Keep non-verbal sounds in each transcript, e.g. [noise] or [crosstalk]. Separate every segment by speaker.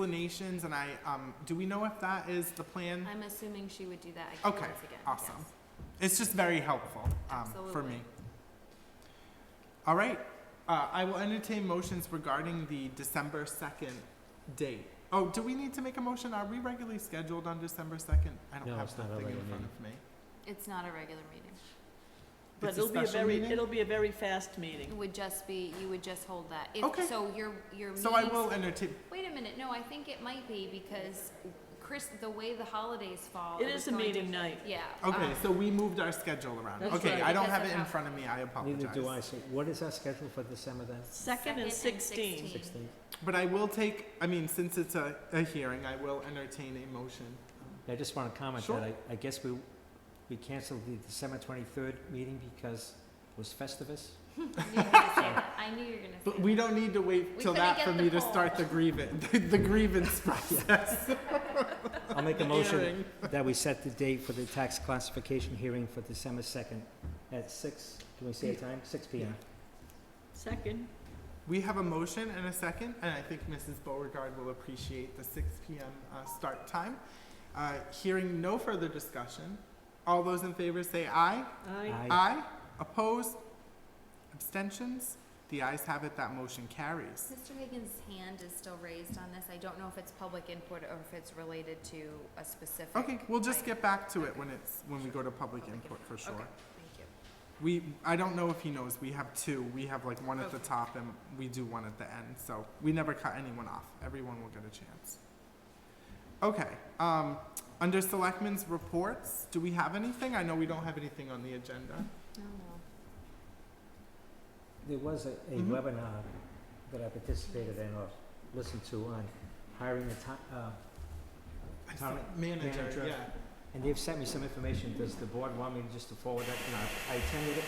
Speaker 1: explanations, and I, um, do we know if that is the plan?
Speaker 2: I'm assuming she would do that again
Speaker 1: Okay,
Speaker 2: once again.
Speaker 1: awesome.
Speaker 2: yes.
Speaker 1: It's just very helpful, um, for
Speaker 2: Absolutely.
Speaker 1: me. All right, uh, I will entertain motions regarding the December second date. Oh, do we need to make a motion? Are we regularly scheduled on December second? I don't
Speaker 3: No,
Speaker 1: have
Speaker 3: it's not a
Speaker 1: something in
Speaker 3: regular
Speaker 1: front
Speaker 3: meeting.
Speaker 1: of me.
Speaker 2: It's not a regular meeting.
Speaker 1: It's
Speaker 4: But it'll be a
Speaker 1: special
Speaker 4: very,
Speaker 1: meeting?
Speaker 4: it'll be a very fast meeting.
Speaker 2: It would just be, you would just hold that. If-
Speaker 1: Okay.
Speaker 2: So your, your meetings.
Speaker 1: So I will entertain,
Speaker 2: Wait a minute, no, I think it might be because Chris, the way the holidays fall.
Speaker 4: It
Speaker 2: was
Speaker 4: is a
Speaker 2: going to-
Speaker 4: meeting night.
Speaker 2: Yeah.
Speaker 1: okay,
Speaker 2: um,
Speaker 1: so we moved our schedule around.
Speaker 4: Ah. That's
Speaker 1: Okay,
Speaker 4: right.
Speaker 1: I don't
Speaker 2: Because
Speaker 1: have it
Speaker 2: of
Speaker 1: in
Speaker 2: how-
Speaker 1: front of me, I apologize.
Speaker 3: Neither do I, so what is our schedule for December then?
Speaker 4: Second and sixteenth.
Speaker 3: Sixteenth?
Speaker 1: But I will take, I mean, since it's a, a hearing, I will entertain a motion.
Speaker 3: I just want to comment
Speaker 1: Sure.
Speaker 3: that I, I guess we, we canceled the December twenty-third meeting because it was Festivus.
Speaker 2: You were gonna say that. I knew you were gonna say that.
Speaker 1: But we don't need to wait
Speaker 2: We
Speaker 1: till
Speaker 2: couldn't
Speaker 1: that
Speaker 2: get
Speaker 1: for
Speaker 2: the
Speaker 1: me to
Speaker 2: poll.
Speaker 1: start the grievance, [laughs] the grievance process.
Speaker 3: I'll [laughs] make a motion
Speaker 1: Hearing.
Speaker 3: that we set the date for the tax classification hearing for December second at six, can we say a time? Six P M.
Speaker 4: Second,
Speaker 1: We have a motion and a second, and I think Mrs. Beauregard will appreciate the six PM uh, start time. Uh, Hearing no further discussion, all those in favor say aye.
Speaker 4: aye.
Speaker 3: Aye.
Speaker 1: Aye. Opposed? Abstentions? The ayes have it, that motion carries.
Speaker 2: Mr. Higgins' hand is still raised on this. I don't know if it's public input or if it's related to a specific.
Speaker 1: Okay, we'll just
Speaker 2: item.
Speaker 1: get back to it when it's, when we go to public input for
Speaker 2: Okay,
Speaker 1: sure.
Speaker 2: thank you.
Speaker 1: We, I don't know if he knows, we have two, we have like one at the
Speaker 2: Okay.
Speaker 1: top and we do one at the end, so we never cut anyone off, everyone will get a chance. Okay, um, under selectmen's reports, do we have anything? I know we don't have anything on the agenda.
Speaker 2: No, no.
Speaker 3: There was a, a
Speaker 1: Mhm.
Speaker 3: webinar that I participated in or listened to on hiring a ti- uh,
Speaker 1: I
Speaker 3: Town
Speaker 1: saw- Um, Manager,
Speaker 3: manager.
Speaker 1: yeah.
Speaker 3: And they've sent me some information, does the board want me just to forward that, you know, I attended it.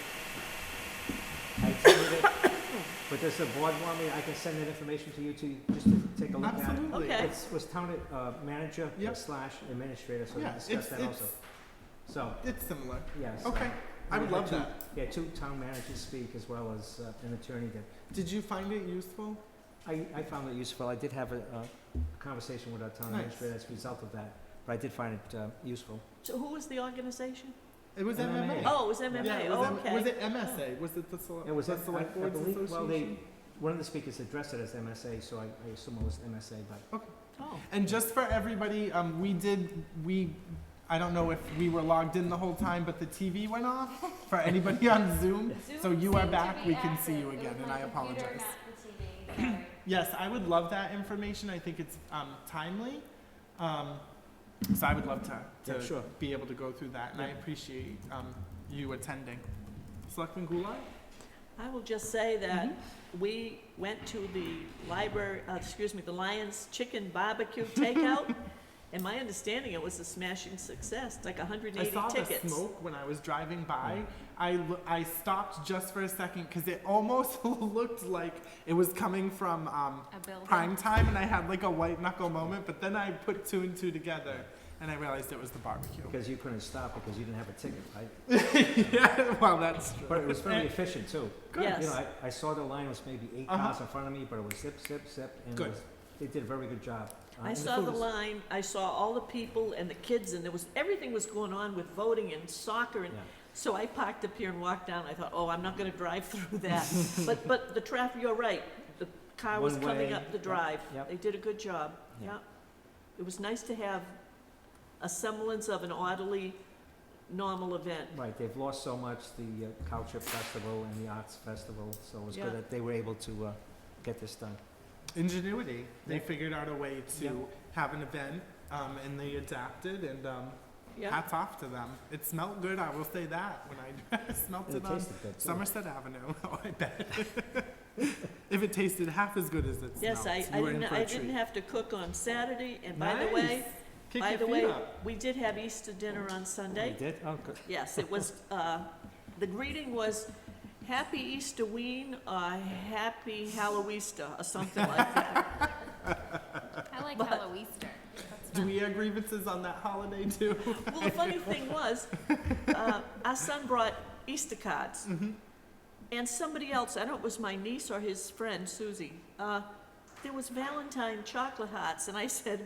Speaker 3: I
Speaker 1: [coughs]
Speaker 3: attended it, but does the board want me, I can send that information to you too, just to take a look at it?
Speaker 1: Absolutely.
Speaker 4: Okay.
Speaker 3: It's, was town ad- uh, manager
Speaker 1: Yep.
Speaker 3: slash administrator, so we
Speaker 1: Yeah,
Speaker 3: discussed
Speaker 1: it's,
Speaker 3: that also.
Speaker 1: it's,
Speaker 3: So,
Speaker 1: it's similar.
Speaker 3: yes.
Speaker 1: Okay, I would love that.
Speaker 3: Yeah, two town managers speak as well as uh, an attorney that,
Speaker 1: Did you find it useful?
Speaker 3: I, I found it useful, I did have a, uh conversation with our town
Speaker 1: Nice.
Speaker 3: administrator as a result of that, but I did find it, uh, useful.
Speaker 4: So who was the organization?
Speaker 1: It was
Speaker 3: MMA.
Speaker 1: MMA.
Speaker 4: Oh, it was
Speaker 1: Yeah,
Speaker 4: MMA,
Speaker 1: it was M-
Speaker 4: okay.
Speaker 1: Was it MSA? Was it the Select,
Speaker 3: It was
Speaker 1: the
Speaker 3: M- I-
Speaker 1: Select
Speaker 3: I
Speaker 1: Boards
Speaker 3: believe- well, they-
Speaker 1: Association?
Speaker 3: One of the speakers addressed it as MSA, so I, I assume it was MSA, but
Speaker 4: Oh,
Speaker 1: And just for everybody, um, we did, we, I don't know if we were logged in the whole time, but the TV went off for anybody [laughs] on Zoom. So
Speaker 2: Zoom
Speaker 1: you are
Speaker 2: seemed to
Speaker 1: back.
Speaker 2: be
Speaker 1: We can see
Speaker 2: active.
Speaker 1: you
Speaker 2: It was
Speaker 1: again, and
Speaker 2: my
Speaker 1: I
Speaker 2: computer,
Speaker 1: apologize.
Speaker 2: not the TV, sorry.
Speaker 1: Yes, I would love that information. I think it's, um, timely. Um, so I would love to,
Speaker 3: Yeah,
Speaker 1: to
Speaker 3: sure.
Speaker 1: be able to go through that, and I
Speaker 3: Yeah.
Speaker 1: appreciate, um, you attending. Selectman Goulart?
Speaker 4: I will just say that we went to the library, uh, excuse me, the Lions Chicken Barbecue
Speaker 1: [laughs]
Speaker 4: Takeout, and my understanding, it was a smashing success, like hundred and
Speaker 1: I
Speaker 4: eighty
Speaker 1: saw
Speaker 4: tickets.
Speaker 1: the smoke when I was driving by. I, lo- I stopped just for a second because it almost [laughs] looked like it was coming from um,
Speaker 2: A building.
Speaker 1: prime time, and I had like a white knuckle moment. But then I put two and two together, and I realized it was the barbecue.
Speaker 3: because you couldn't stop because you didn't have a ticket, right?
Speaker 1: [laughs] yeah, well, that's true.
Speaker 3: But it was very efficient too.
Speaker 1: Good.
Speaker 4: Yes.
Speaker 3: You know, I, I saw the line was maybe eight
Speaker 1: Uh-huh.
Speaker 3: cars in front of me, but it was zip, zip, zip, and it
Speaker 1: Good.
Speaker 3: was, they did a very good job. Uh,
Speaker 4: I
Speaker 3: and the
Speaker 4: saw
Speaker 3: food
Speaker 4: the
Speaker 3: was-
Speaker 4: line, I saw all the people and the kids, and there was, everything was going on with voting and soccer, and
Speaker 3: Yeah.
Speaker 4: so I parked up here and walked down, I thought, oh, I'm not gonna drive
Speaker 1: [laughs]
Speaker 4: through that. But, but the traffic, you're right, the car was
Speaker 3: One
Speaker 4: coming
Speaker 3: way,
Speaker 4: up the
Speaker 3: yep,
Speaker 4: drive.
Speaker 3: yep.
Speaker 4: They did a good job,
Speaker 3: Yeah.
Speaker 4: yeah. It was nice to have a semblance of an orderly, normal event.
Speaker 3: Right, they've lost so much, the uh, Culture Festival and the Arts Festival, so it was
Speaker 4: Yeah.
Speaker 3: good that they were able to, uh, get this done.
Speaker 1: Ingenuity. They
Speaker 3: Yeah.
Speaker 1: figured out a way to
Speaker 3: Yeah.
Speaker 1: have an event, um, and they adapted. And um,
Speaker 4: Yeah,
Speaker 1: hats off to them. It smelled good. I will say that when I [laughs] smelt
Speaker 3: And
Speaker 1: it
Speaker 3: it
Speaker 1: on
Speaker 3: tasted good too.
Speaker 1: Somerset Avenue. [laughs] Oh, I bet. if it tasted half as good as it
Speaker 4: yes, I,
Speaker 1: smelled,
Speaker 4: I
Speaker 1: you were in
Speaker 4: didn't,
Speaker 1: for a
Speaker 4: I didn't
Speaker 1: treat.
Speaker 4: have to cook on Saturday, and by the way,
Speaker 1: Nice. Kick
Speaker 4: by
Speaker 1: your
Speaker 4: the
Speaker 1: feet
Speaker 4: way,
Speaker 1: up.
Speaker 4: we did have Easter dinner on
Speaker 3: They
Speaker 4: Sunday.
Speaker 3: did? Oh, good.
Speaker 4: Yes, it
Speaker 1: [laughs]
Speaker 4: was, uh, the greeting was, "Happy Easter Ween," or "Happy Halloweester," or something like that.
Speaker 2: I like
Speaker 4: But-
Speaker 2: Halloweester. That's
Speaker 1: Do
Speaker 2: fun.
Speaker 1: we have grievances on that holiday too?
Speaker 4: Well, the funny thing was, uh, our son brought Easter cards. And somebody else, I don't know, if it was my niece or his friend, Susie, uh, there was Valentine chocolate hearts, and I said,